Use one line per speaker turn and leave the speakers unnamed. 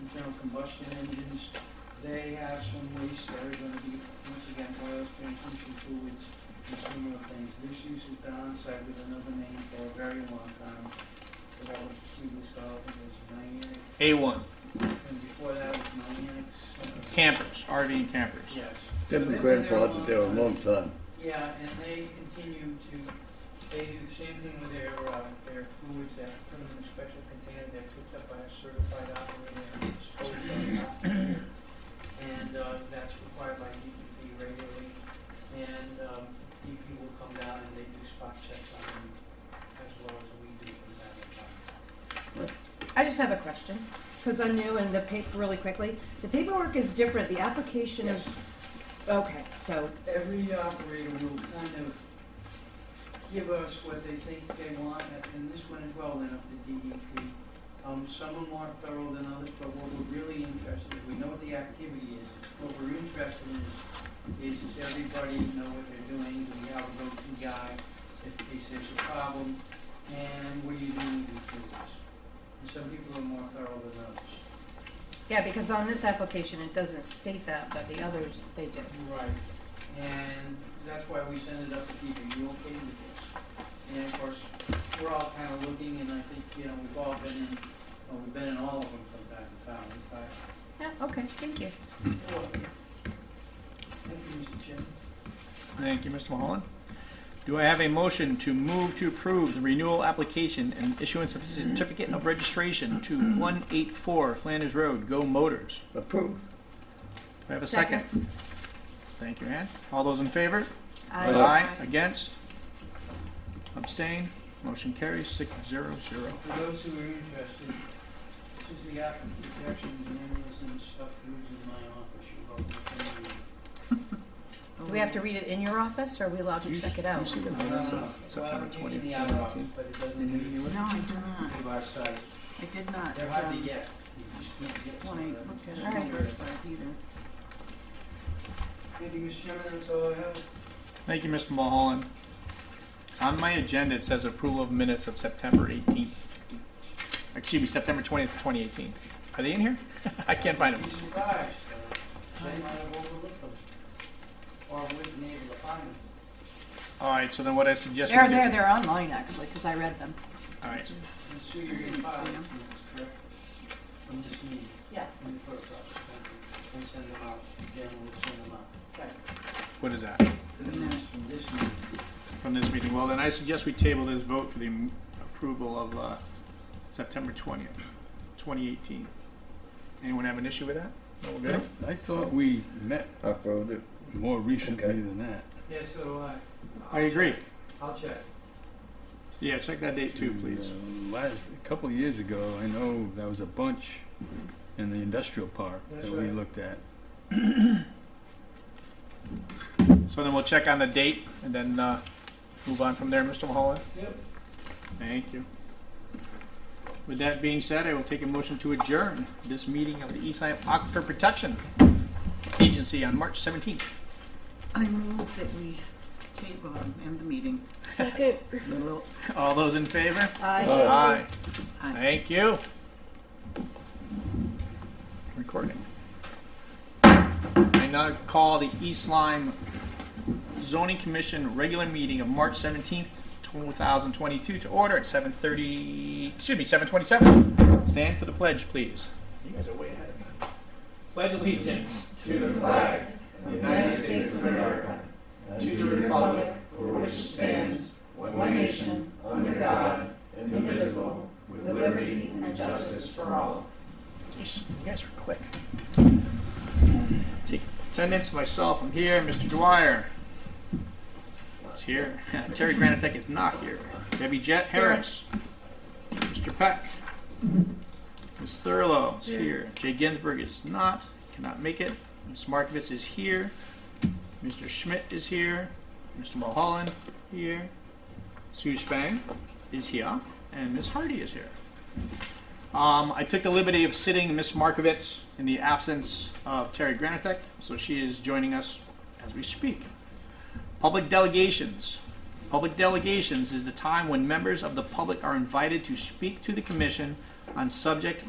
internal combustion engines, they have some waste that are gonna be, once again, oils, transmission fluids, and similar things. This use has been on site with another name for a very long time. So that was previous called, it was Niantic,
A1,
and before that was Niantic's. uh,
campers, RV and campers.
Yes.
They've been
So they're- they're a
grandfathered there a long time.
Yeah, and they continue to, they do the same thing with their, uh, their fluids, they put them in a special container, they're picked up by a certified operator and disposed of after. And, uh, that's required by DEP regularly, and, um, DEP will come down and they do spot checks on them as well as we do from time to time.
I just have a question, because I'm new and the paper, really quickly, the paperwork is different, the application is, okay, so,
every operator will kind of give us what they think they want, and this one as well went up to DEP. Um, some are more thorough than others, but what we're really interested in, we know what the activity is. What we're interested in is, is does everybody know what they're doing, do we have a go-to guy if, if there's a problem, and what are you doing to do this? And some people are more thorough than others.
yeah, because on this application, it doesn't state that, but the others, they do.
Right, and that's why we send it up to people, you okay with this? And of course, we're all kind of looking, and I think, you know, we've all been in, well, we've been in all of them from time to time, in fact. oh,
Yeah, okay, thank you.
Thank you, Mr. Chairman.
Thank you, Mr. Mulholland. Do I have a motion to move to approve the renewal application and issuance of certificate of registration to 184 Flanders Road, Go Motors?
Approved.
Do I have a second? Thank you, Ann. All those in favor?
Aye.
Against? Abstain? Motion carries six zero zero.
For those who are interested, this is the app of protection, manuals and stuff moves in my office, you're welcome to send me.
Do we have to read it in your office, or are we allowed to
You-
check it
you
out?
see the
I don't
minutes
know.
of September
uh, Well, I'm
20th,
in the outer office,
2019?
but it doesn't
You
leave
would-
No, I do not.
our site.
I did not.
They're hard to
um,
get. You just can't get
When I
some of
looked at
them.
it on the website either.
Thank you, Mr. Chairman, that's all I have.
Thank you, Mr. Mulholland. On my agenda, it says approval of minutes of September 18th. Excuse me, September 20th, 2018. Are they in here? I can't find them.
Be surprised, uh, they might have overlooked them. Or wouldn't be able to find them.
All right, so then what I suggest we do.
They're there, they're online, actually, because I read them.
All right,
And so you're
I
getting
didn't see
five,
them.
correct? I'm just me.
Yeah.
In the clerk's office, thank you. And send them out, Jen will send them out.
what is that?
To the minutes from this meeting.
From this meeting. Well, then I suggest we table this vote for the m- approval of uh, September 20th, 2018. Anyone have an issue with that? No, we're good?
I- I thought we met
Approved it.
more recently
Okay.
than that.
Yeah, so do I.
I agree.
I'll check.
Yeah, check that date too,
And,
please.
uh, Last, a couple of years ago, I know there was a bunch in the industrial park
That's
that we
right.
looked at.
So then we'll check on the date and then uh, move on from there, Mr. Mulholland.
Yep.
Thank you. With that being said, I will take a motion to adjourn this meeting of the Eastside Aquifer Protection Agency on March 17th.
I move that we table um, and end the meeting.
Second.
Little-
All those in favor?
Aye.
Aye.
Aye.
Thank you. Recording. I now call the East Lyme Zoning Commission regular meeting of March 17th, 2022 to order at 7:30, excuse me, 7:27. Stand for the pledge, please. You guys are way ahead of me. Pledge allegiance to the flag of the United States of America and to the republic for which it stands,
one nation, under God, indivisible, with liberty and justice for all.
Jeez, you guys are quick. Take attendance, myself, I'm here, Mr. Dwyer. It's here. Terry Granitek is not here. Debbie Jett Harris. Mr. Peck. Ms. Thurlow is here. Jay Ginsburg is not, cannot make it. Ms. Markovitz is here. Mr. Schmidt is here. Mr. Mulholland, here. Sue Spang is here. And Ms. Hardy is here. Um, I took the liberty of sitting Miss Markovitz in the absence of Terry Granitek, so she is joining us as we speak. Public delegations. Public delegations is the time when members of the public are invited to speak to the commission on subject